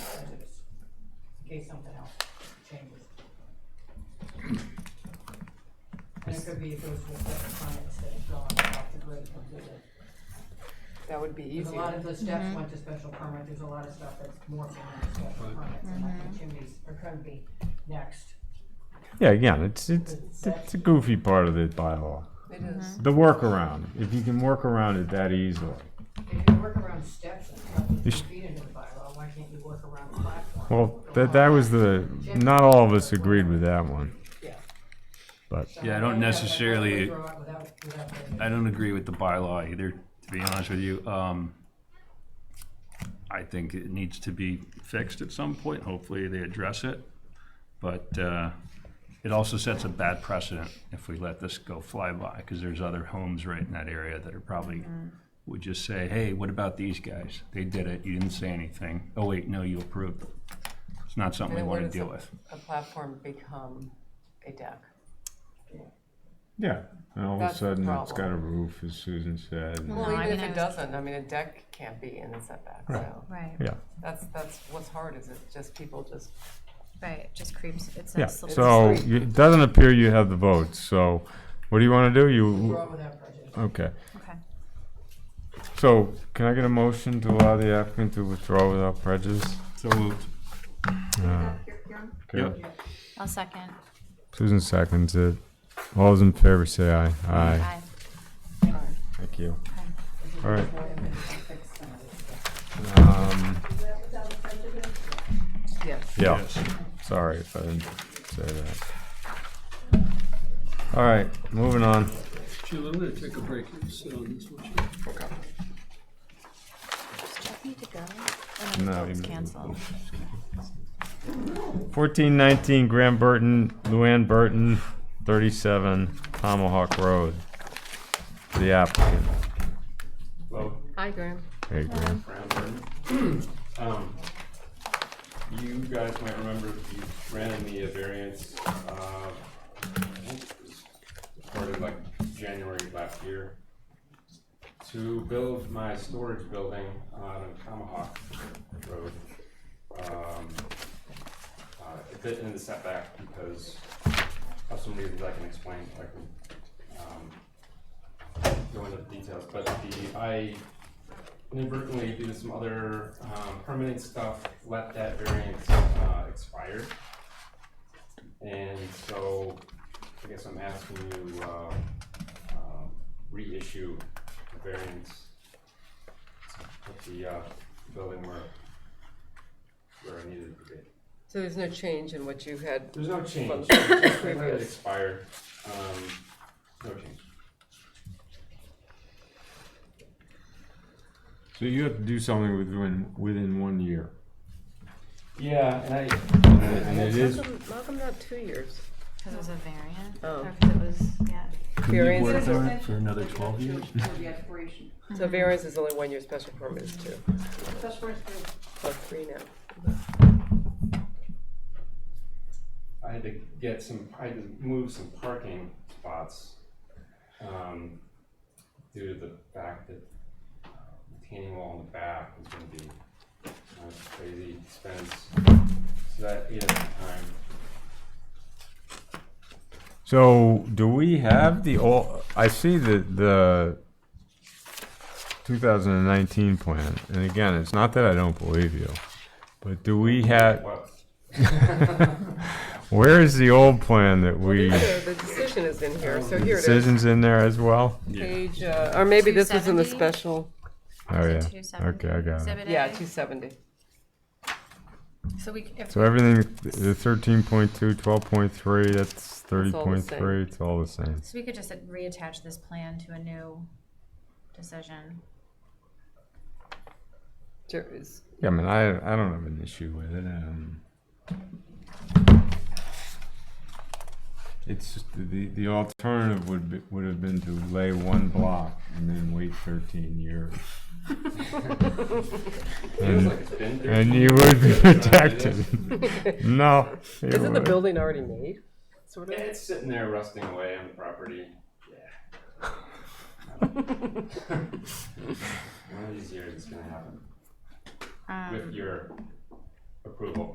case something else changes. And it could be it goes to a separate fund instead of going off the grid completely. That would be Because a lot easier. of the steps went to special permit, there's a lot of stuff that's more than special permits, and I think chimneys are gonna be next. Yeah, again, it's it's it's a goofy part of the bylaw. It is. The workaround, if you can work around it that easily. If you work around steps and stuff, You you sh- feed into the bylaw, why can't you work around the platform? Well, that that was the not all of us agreed with that one, Yeah. but Yeah, I don't necessarily- I I don't agree with the bylaw either, to be honest with you. Um, I think it needs to be fixed at some point. Hopefully, they address it. But uh, it also sets a bad precedent if we let this go fly by, because there's other homes right in that area that are probably, would just say, hey, what about these guys? They did it, you didn't say anything. Oh, wait, no, you approved. It's not something we And what want to does deal a- with. A platform become a deck. yeah. And all of a That's the sudden, it's got problem. a roof, as Susan said. and- Well, No, I even mean, if I it was- doesn't, I mean, a deck can't be in a setback, so. Right, Yeah, That's, that's what's hard, is it's just people just, right, it just creeps, it's yeah. a slippery. So three. you- it doesn't appear you have the votes. So, what do you want to do? You Draw without prejudice. okay? Okay, So, can I get a motion to allow the applicant to withdraw without prejudice? So moved. Uh, Yep. okay. I'll second. Susan seconds it. All those in favor say aye. Aye. Aye. Thank you. Okay. All right. Fix some of this stuff. Um, yes. yeah. Yes. Sorry if I didn't say that. All right, moving on. Jill, I'm gonna take a break and sit on this one. Jill. Does Jeff need to go? Oh, no, No, that he was moved. canceled. Fourteen nineteen Graham Burton, Luann Burton, thirty-seven Tomahawk Road. The applicant. Hi, Graham. Hey, Graham. Brown Burden. Um, you guys might remember you ran in the variance, uh, I think it was started like January last year to build my storage building on Tomahawk Road. Um, uh, it fit in the setback because of some reasons I can explain, I can, um, go into the details, but the, I inadvertently due to some other um, permitting stuff, let that variance uh, expire. And so I guess I'm asking you uh, um, reissue the variance of the uh, building where where I needed it to be. So there's no change in what you had There's no change. But- Just Let it expire. Um, no change. So you have to do something within, within one year. Yeah, and I. And it is, Malcolm, Malcolm, not two years. Because it was a variant, Oh. or because it was, yeah. Variance is- for another twelve years? So variance is only one year, special permit is two. Or three now. I had to get some, I had to move some parking spots, um, due to the fact that uh, retaining wall in the back was gonna be a crazy expense. So that ate up my time. so do we have the, all? I see the, the two thousand and nineteen plan, and again, it's not that I don't believe you, but do we have, What? where is the old plan that we, So the decision is in here, so here it is. decisions in there as well? Page, uh, or maybe this was in the 270? special, Oh, Is yeah, it 270? okay, I got it. Exhibit yeah, A? two seventy. So we, c- if, So everything, the thirteen point two, twelve point three, that's thirty It's all the point same. three, it's all the same. so we could just uh, reattach this plan to a new decision. There is, Yeah, I mean, I, I don't have an issue with it, um. It's just, the, the alternative would be, would have been to lay one block and then wait thirteen years. Feels And, like it's been there. and you would be It's not, it protected. is. No. you isn't the wouldn't. building already made, sort Yeah, of? it's sitting there rusting away on the property. Yeah. One of these years it's gonna happen, Um, with your approval.